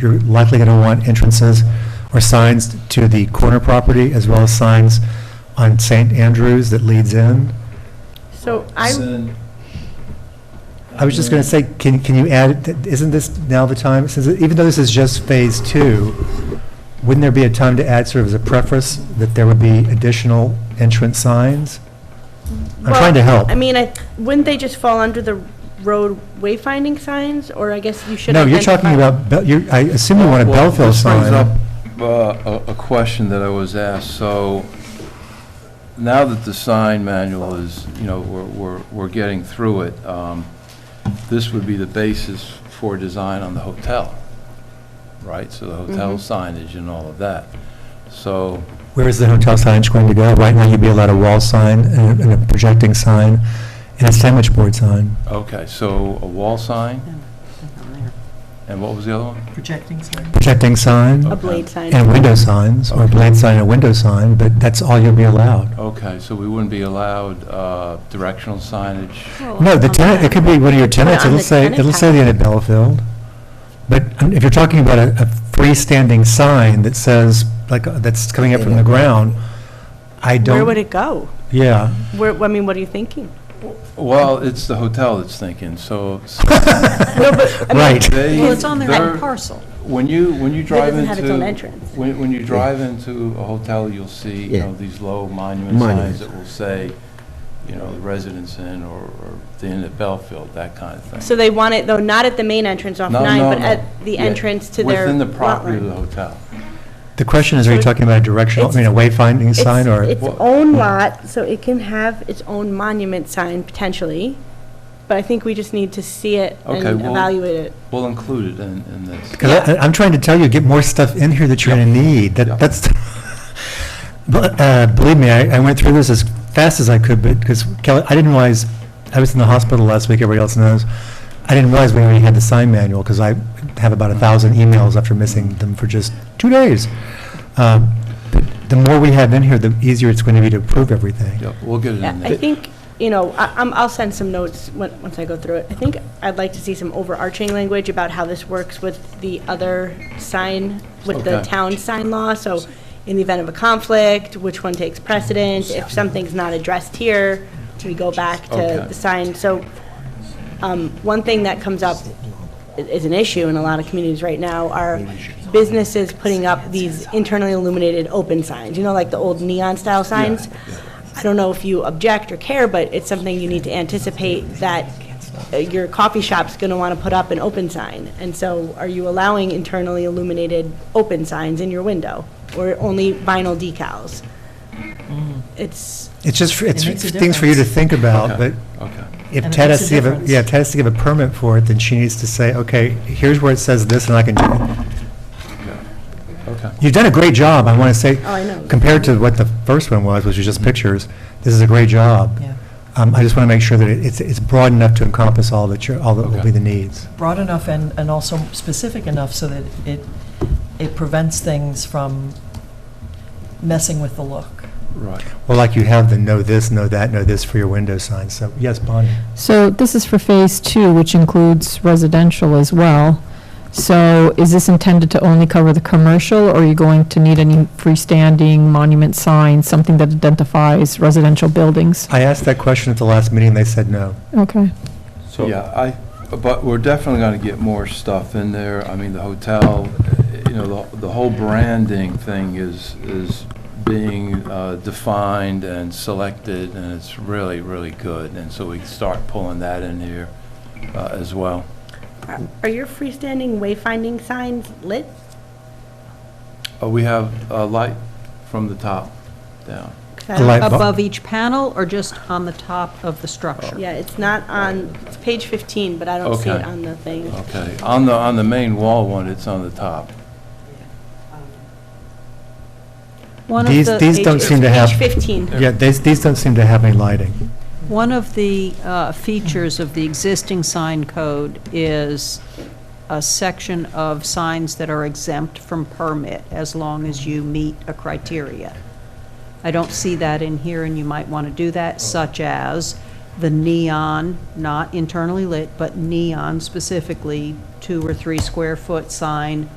you're likely going to want entrances or signs to the corner property, as well as signs on St. Andrews that leads in. So I, Send- I was just going to say, can, can you add, th- isn't this now the time, since, it- even though this is just phase two, wouldn't there be a time to add sort of as a preface that there would be additional entrance signs? I'm trying to help. I mean, I, wouldn't they just fall under the road wayfinding signs, or I guess you should No, you're identify? talking about, Bel- you, I assume you want a Well, Belleville sign. This brings up uh, a a question that I was asked. So now that the sign manual is, you know, we're- we're we're getting through it, um, this would be the basis for design on the hotel, right? So the hotel signage and all of that. So, Where is the hotel signage going to go? Right now, you'd be allowed a wall sign and a- and a projecting sign and a sandwich board sign. okay, so a wall sign, and what was the other one? Projecting sign. Projecting A sign blade sign. and window signs, or a blade sign and a window sign, but that's all you'll be allowed. Okay, so we wouldn't be allowed uh, directional signage? Oh, No, the tenant, it could be one of your tenants, on it'll the say, tenant it'll say the package. Inn at Bellfield. But um, if you're talking about a, a freestanding sign that says, like, uh, that's coming up from the ground, I Where would don't, it go? yeah. Where, I mean, what are you thinking? Well, it's the hotel that's thinking, so Right. They- Well, it's on their they're- own parcel. When you, when you drive doesn't into... have its own entrance. When, when you drive into a hotel, you'll see, you Yeah. know, these low monument Monuments. signs that will say, you know, the Residence Inn or or the Inn at Bellfield, that kind of thing. So they want it, though, not at the main entrance off No, nine, no, but no. at the Yeah, entrance to their Within the lot property of the line. hotel. The question is, are you So talking about a directional, I mean, a wayfinding It's sign or? Its own lot, so it can have its own monument sign potentially, but I think we just need to see it and Okay, well- evaluate it. We'll include it in, in this. Because I, I'm trying to tell you, get more stuff in here that you're going to need. Yep. That, that's, but, uh, believe me, I, I went through this as fast as I could, but, because Kelly, I didn't realize, I was in the hospital last week, everybody else knows. I didn't realize we already had the sign manual, because I have about a thousand emails after missing them for just two days. Um, but The more we have in here, the easier it's going to be to approve everything. Yep, we'll get it Yeah, in I there. think, you know, I- I'm, I'll send some notes when, once I go through it. I think I'd like to see some overarching language about how this works with the other sign, with the Okay. town sign law, so in the event of a conflict, which one takes precedence, if something's not addressed here, we go back to Okay. the sign, so, um, one thing that comes up i- is an issue in a lot of communities right now are businesses putting up these internally illuminated open signs, you know, like the old neon-style signs. I don't know if you object or care, but it's something you need to anticipate that uh, your coffee shop's going to want to put up an open sign. And so are you allowing internally illuminated open signs in your window or only vinyl decals? Mm. It's, It's just, it's makes a things for you to difference. think about, Okay, but okay. If And it Ted makes has a to give, a- difference. yeah, Ted has to give a permit for it, then she needs to say, okay, here's where it says this, and I can do it. Okay. You've done a great job, I want to say. Oh, I know. Compared to what the first one was, which was just pictures, this is a great job. Yeah. Um, I just want to make sure that it- it's, it's broad enough to encompass all that you're, all that will Okay. be the needs. Broad enough and, and also specific enough so that it, it prevents things from messing with the look. Right. Well, like you have the know this, know that, know this for your window signs, so, yes, Bonnie? So this is for Phase 2, which includes residential as well. So is this intended to only cover the commercial, or are you going to need any freestanding monument signs, something that identifies residential buildings? I asked that question at the last meeting, they said no. Okay. So, yeah, I, but we're definitely going to get more stuff in there. I mean, the hotel, you know, the, the whole branding thing is, is being uh, defined and selected, and it's really, really good. And so we can start pulling that in here uh, as well. are- are your freestanding wayfinding signs lit? Uh, We have a light from the top down. 'Cause I don't- A light bu- Above each panel or just on the top of the structure? Yeah, it's not on, it's page 15, but I don't see it Okay. on the thing. Okay, on the, on the main wall one, it's on the top. One of These, the- these don't Page- seem to it's have, Page 15. yeah, these, these don't seem to have any lighting. One of the uh, features of the existing sign code is a section of signs that are exempt from permit as long as you meet a criteria. I don't see that in here, and you might want to do that, such as the neon, not internally lit, but neon specifically, two or three square foot sign